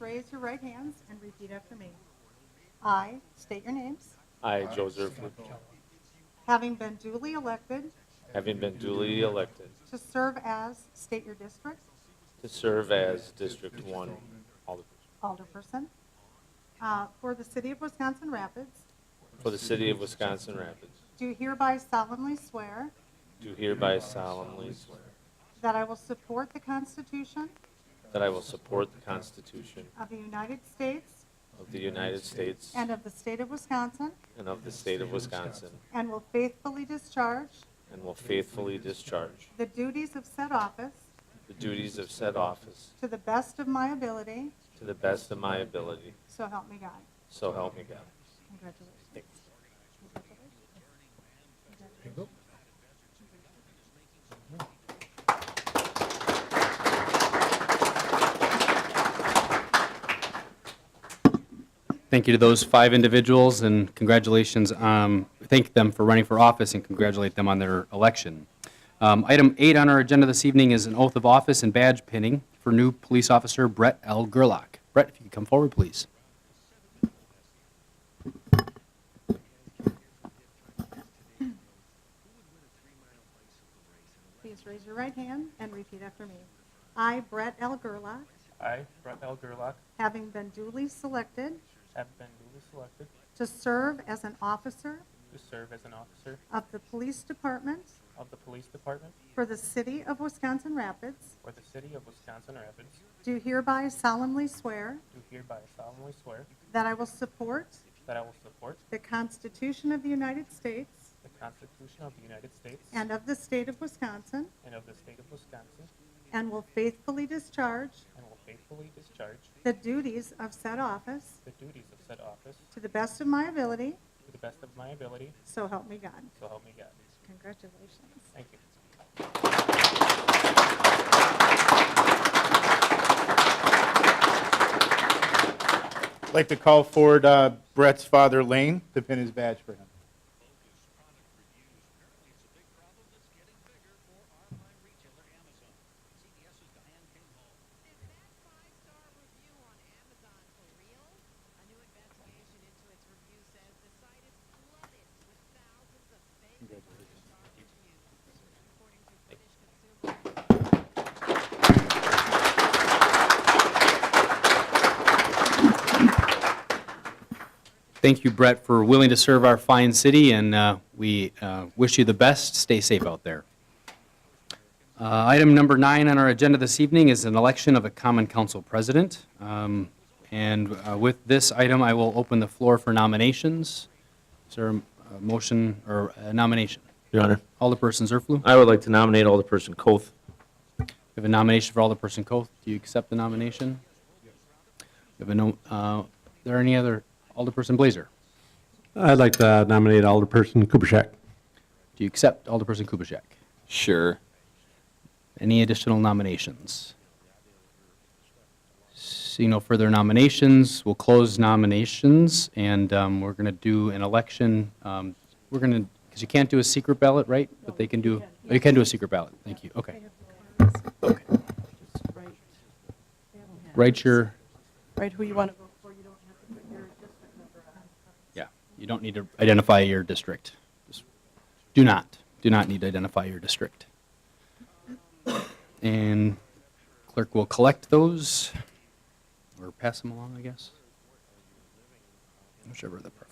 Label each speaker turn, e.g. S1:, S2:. S1: raise your right hands and repeat after me. I state your names,
S2: I, Joseph
S3: Martello,
S2: Martello,
S1: having been duly elected
S2: having been duly elected
S1: to serve as, state your district,
S2: to serve as District 1 Alderperson
S1: alderperson, uh, for the city of Wisconsin Rapids,
S2: for the city of Wisconsin Rapids,
S1: do hereby solemnly swear
S2: do hereby solemnly swear
S1: that I will support the Constitution
S2: that I will support the Constitution
S1: of the United States
S2: of the United States
S1: and of the state of Wisconsin,
S2: and of the state of Wisconsin,
S1: and will faithfully discharge
S2: and will faithfully discharge
S1: the duties of said office
S2: the duties of said office
S1: to the best of my ability,
S2: to the best of my ability,
S1: so help me God.
S2: so help me God.
S1: Congratulations.
S3: There you go.
S4: Thank you to those five individuals, and congratulations, um, thank them for running for office and congratulate them on their election. Um, Item eight on our agenda this evening is an oath of office and badge pinning for new police officer Brett L. Gerlach. Brett, if you could come forward, please.
S1: Please raise your right hand and repeat after me. I, Brett L. Gerlach,
S5: I, Brett L. Gerlach,
S1: having been duly selected
S5: have been duly selected
S1: to serve as an officer
S5: to serve as an officer
S1: of the Police Department
S5: of the Police Department
S1: for the City of Wisconsin Rapids,
S5: for the City of Wisconsin Rapids,
S1: do hereby solemnly swear
S5: do hereby solemnly swear
S1: that I will support
S5: that I will support
S1: the Constitution of the United States
S5: the Constitution of the United States
S1: and of the State of Wisconsin,
S5: and of the State of Wisconsin,
S1: and will faithfully discharge
S5: and will faithfully discharge
S1: the duties of said office
S5: the duties of said office
S1: to the best of my ability,
S5: to the best of my ability,
S1: so help me God.
S5: so help me God.
S1: Congratulations.
S5: Thank you.
S3: I'd like to call forward uh, Brett's father, Lane, to pin his badge for him.
S6: Is that five-star review on Amazon for real? A new investigation into its review says the site is flooded with thousands of fake five-star reviews, according to British consumer.
S4: Thank you, Brett, for willing to serve our fine city, and uh, we uh, wish you the best. Stay safe out there. Uh, Item number nine on our agenda this evening is an election of a common council president. Um, And uh, with this item, I will open the floor for nominations. Is there a motion or a nomination?
S7: Your Honor,
S4: Alderperson Zerflu, we
S7: I would like to nominate Alderperson Coth.
S4: have a nomination for Alderperson Coth. Do you accept the nomination? We have a no- uh, Are there any other, Alderperson Blazer?
S8: I'd like to nominate Alderperson Kubaschak.
S4: Do you accept Alderperson Kubaschak?
S9: Sure.
S4: Any additional nominations? See no further nominations, we'll close nominations, and um, we're going to do an election. um, We're going to, because you can't do a secret ballot, right? But they can do, oh, you can do a secret ballot, thank you, okay. Write your,
S10: Right, who you want to vote for, you don't have to
S4: yeah, you don't need to identify your district. Just Do not, do not need to identify your district. And clerk will collect those, or pass them along, I guess. Whichever the preference. Oh,